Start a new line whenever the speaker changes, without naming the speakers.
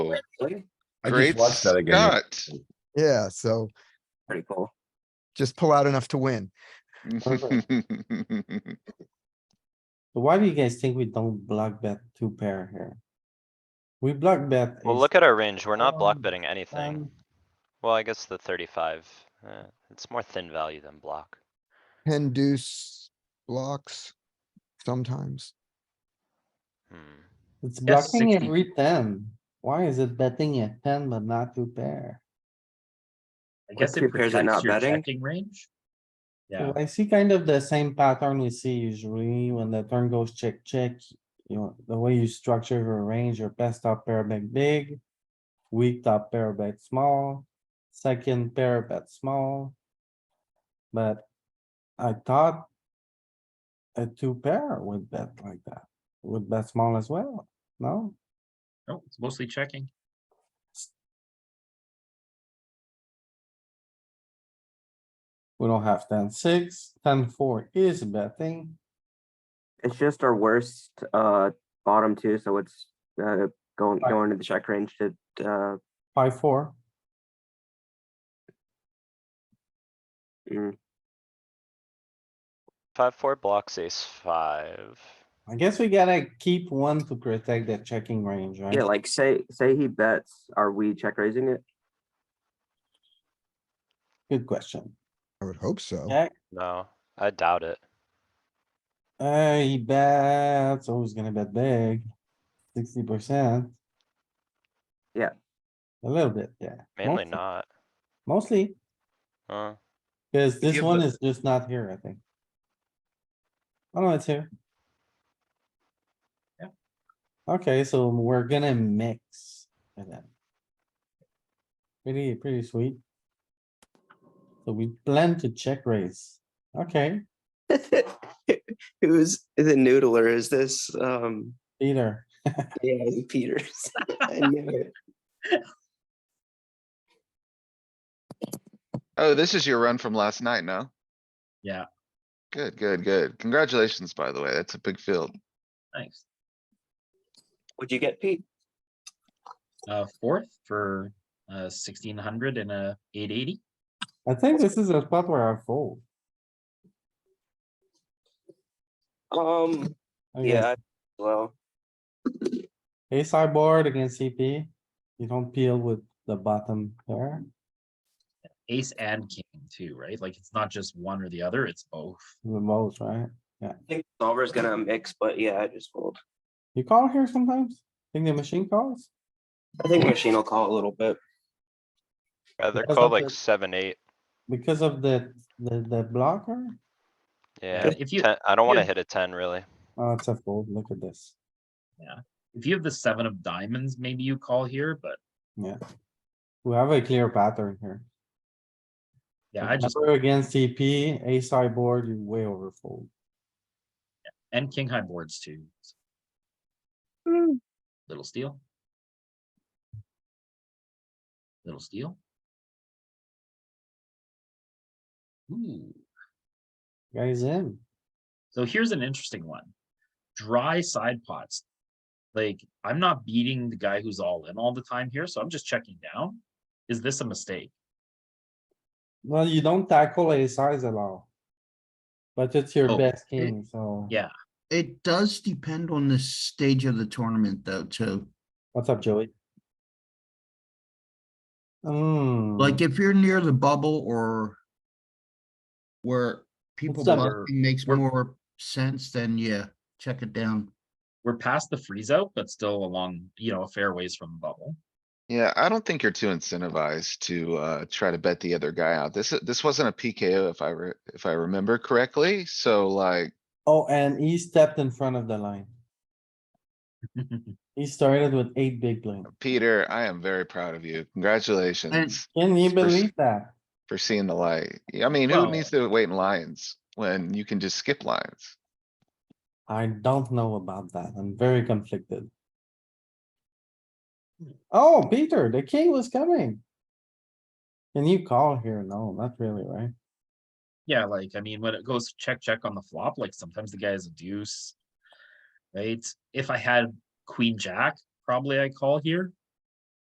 Wow, really?
I
Great
just watched that again.
Scott.
Yeah, so
Pretty cool.
just pull out enough to win.
Why do you guys think we don't block bet two pair here? We block bet.
Well,
ace-
look at our range. We're not block
Um,
betting anything.
um,
Well, I guess the thirty-five, uh, it's more thin value than block.
Ten deuce blocks sometimes.
Hmm.
It's
Yes,
blocking
60.
every ten. Why is it betting at ten but not two pair?
I guess it pairs are not betting.
range. Yeah,
So I see kind of the same pattern we see usually when the turn goes check, check. You know, the way you structure your range, your best top pair bet big, weak top pair bet small, second pair bet small. But I thought a two pair would bet like that, would bet small as well, no?
no, it's mostly checking.
We don't have ten six, ten four is betting.
It's just our worst, uh, bottom two, so it's, uh, going,
Right.
going to the check range to, uh,
Five, four.
mm,
Five, four blocks, ace five.
I guess we gotta keep one to protect the checking range, right?
yeah, like say, say he bets, are we check raising it?
Good question.
I would hope so.
Yeah.
No, I doubt it.
Uh, he bets, always gonna bet big, sixty percent.
Yeah.
A little bit, yeah, Mostly.
Mainly not.
mostly,
Uh,
cause this
Yeah,
one
but-
is just not here, I think. Oh, no, it's here.
Yeah.
Okay, so we're gonna mix. with that. Pretty, pretty sweet. So we plan to check raise, okay,
Who's the noodler? Is this um
Peter,
yeah, Peters? I knew it.
Oh, this is your run from last night, no?
Yeah.
Good, good, good. Congratulations, by the way. That's a big field.
Thanks.
Would you get Pete?
Uh, fourth for uh sixteen hundred and a eight eighty.
I think this is a spot where I fold.
Um
I guess.
yeah, well,
Ace high board against CP, you don't peel with the bottom there,
Ace and king too, right? Like it's not just one or the other, it's both.
the most, right?
I think solver's gonna mix, but yeah, I just fold.
You call here sometimes? Think the machine calls?
I think machine will call a little bit.
rather
Because
call
of
like
the-
seven, eight.
Because of the, the, the blocker?
Yeah,
If you-
ten, I don't wanna
you-
hit a ten really.
Oh, it's a fold, look at this.
If you have the seven of diamonds, maybe you call here, but
We have a clear pattern here.
yeah, I just,
Remember Against CP, ace high board, you way overfold.
and king high boards too.
Hmm.
Little steal. Little steal. Ooh.
Guys in,
So here's an interesting one. Dry side pots. Like, I'm not beating the guy who's all in all the time here, so I'm just checking down. Is this a mistake?
well, you don't tackle ace highs at all. But it's your
Oh,
best king, so.
yeah.
It does depend on the stage of the tournament though, too.
What's up, Joey? Hmm.
Like if you're near the bubble or where people
up?
bluffing makes
We're-
more sense, then yeah, check it down.
We're past the freeze out, but still along, you know, a fair ways from the bubble.
Yeah, I don't think you're too incentivized to, uh, try to bet the other guy out. This, this wasn't a PKO if I re- if I remember correctly. So like,
Oh, and he stepped in front of the line. He started with eight big blind.
Peter, I am very proud of you. Congratulations
Can you
It's pers-
believe that?
for seeing the light. I mean, who
Well-
needs to wait in lines when you can just skip lines?
I don't know about that. I'm very conflicted. Oh, Peter, the king was coming. Can you call here? No, not really, right?
Yeah, like, I mean, when it goes check, check on the flop, like sometimes the guy is a deuce. Right? If I had queen jack, probably I call here.